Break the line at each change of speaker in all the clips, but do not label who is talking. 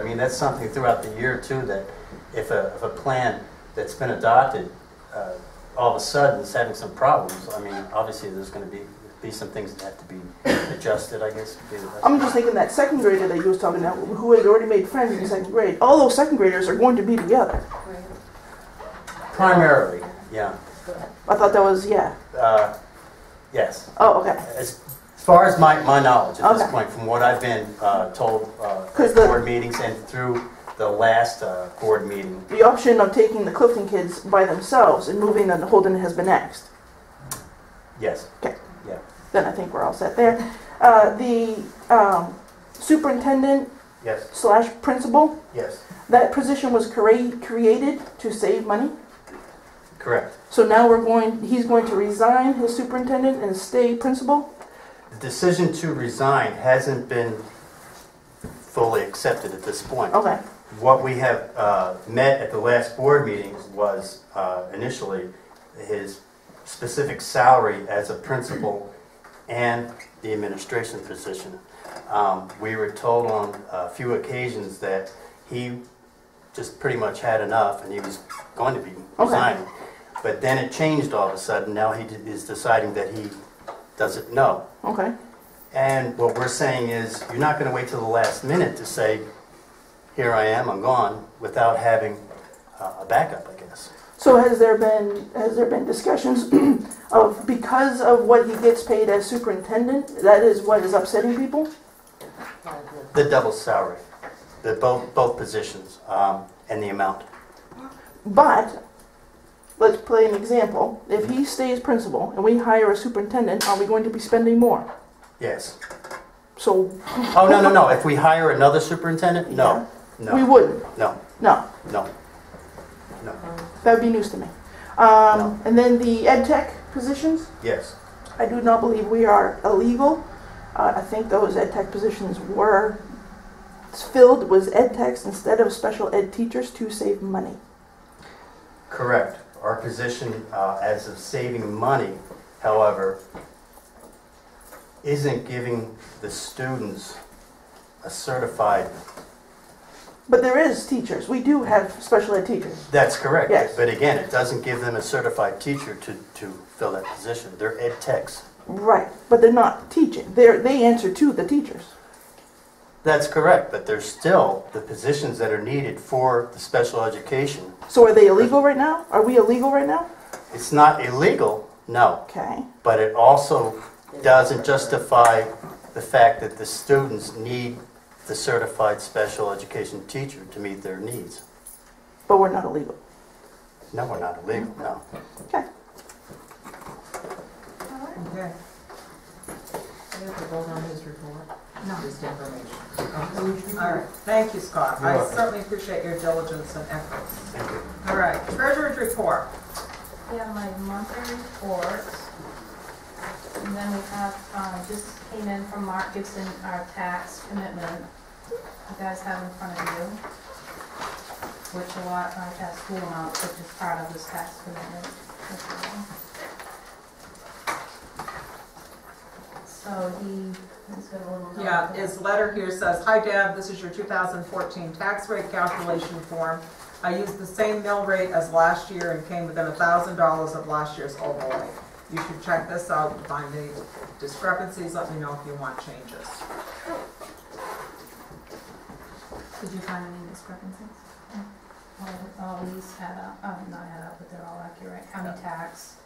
I mean, that's something throughout the year too, that if a, if a plan that's been adopted, uh, all of a sudden is having some problems, I mean, obviously, there's gonna be, be some things that have to be adjusted, I guess. be the best-
I'm just thinking that second grader that you was talking about, who had already made friends in second grade, all those second graders are going to be together.
Primarily, yeah,
I thought that was, yeah.
uh, yes.
Oh, okay.
As as far as my, my knowledge at this
Okay.
point, from what I've been uh, told uh, at
'Cause the-
board meetings and through the last uh, board meeting,
The option of taking the Clifton kids by themselves and moving them to Holden has been axed.
yes.
Then I think we're all set there. Uh, the um, superintendent
Yes,
slash principal,
yes.
that position was crea- created to save money.
Correct.
So now we're going, he's going to resign his superintendent and stay principal.
The decision to resign hasn't been fully accepted at this point.
Okay.
What we have uh, met at the last board meeting was uh, initially his specific salary as a principal and the administration position. Um, We were told on a few occasions that he just pretty much had enough and he was going to be resigning. But then it changed all of a sudden. Now he d- is deciding that he doesn't know.
Okay.
And what we're saying is, you're not going to wait till the last minute to say, here I am, I'm gone, without having uh, a backup, I guess.
So has there been, has there been discussions of, because of what he gets paid as superintendent, that is what is upsetting people?
The double salary, the both, both positions, um, and the amount.
But, let's play an example. If he stays principal and we hire a superintendent, are we going to be spending more?
Yes.
So,
Oh, no, no, no, if we hire another superintendent, no,
we
no,
wouldn't,
no,
no,
no, no,
that would be news to me. Um, and then the ed tech positions,
yes.
I do not believe we are illegal. Uh, I think those ed tech positions were filled with ed techs instead of special ed teachers to save money.
Correct. Our position uh, as of saving money, however, isn't giving the students a certified
But there is teachers. We do have special ed teachers.
That's correct.
Yes.
But again, it doesn't give them a certified teacher to, to fill that position. They're ed techs.
Right. But they're not teaching. They're, they answer to the teachers.
That's correct, but there's still the positions that are needed for the special education.
So are they illegal right now? Are we illegal right now?
It's not illegal, no,
Okay.
but it also doesn't justify the fact that the students need the certified special education teacher to meet their needs.
But we're not illegal.
No, we're not illegal, no.
Okay.
Okay. We have to vote on his report? No. Oh, Just information. All right, thank you, Scott.
You're
I
welcome.
certainly appreciate your diligence and efforts.
Thank you.
All right, treasurer's report.
We have my monthly report. And then we have, uh, just came in from Mark Gibson, our tax commitment. You guys have in front of you, which a lot are tax school amounts, which is part of this tax commitment. as well. So he, he's got a little.
Yeah, his letter here says, "Hi Deb, this is your 2014 tax rate calculation form. I used the same mill rate as last year and came within $1,000 of last year's overlay. You should check this out, If find any discrepancies, let me know if you want changes."
Did you find any discrepancies? Well, Mm. all these add up, um, not add up, but they're all accurate. County tax,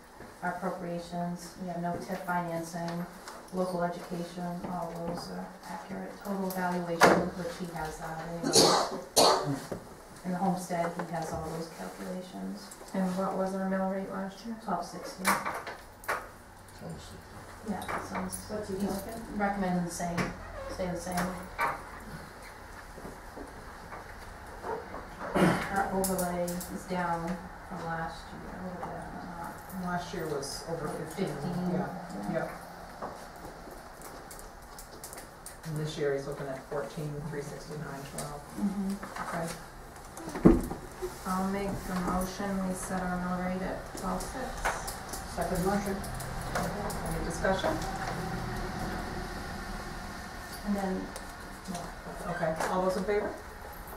our appropriations, we have no tip financing, local education, all those are accurate. Total valuation, which he has that in. In the homestead, he has all those calculations,
And what was our mill rate last year?
twelve sixty. Yeah, that sounds,
What's
he recommending the same, stay the same. Our overlay is down from last year, a little bit, uh,
Last year was over 15.
fifteen.
Yeah. Yep. And this year, he's looking at fourteen, three sixty-nine, twelve.
Mhm.
Okay.
I'll make the motion, we set our mill rate at twelve six.
Second motion. Any discussion?
And then, yeah,
Okay, all those in favor?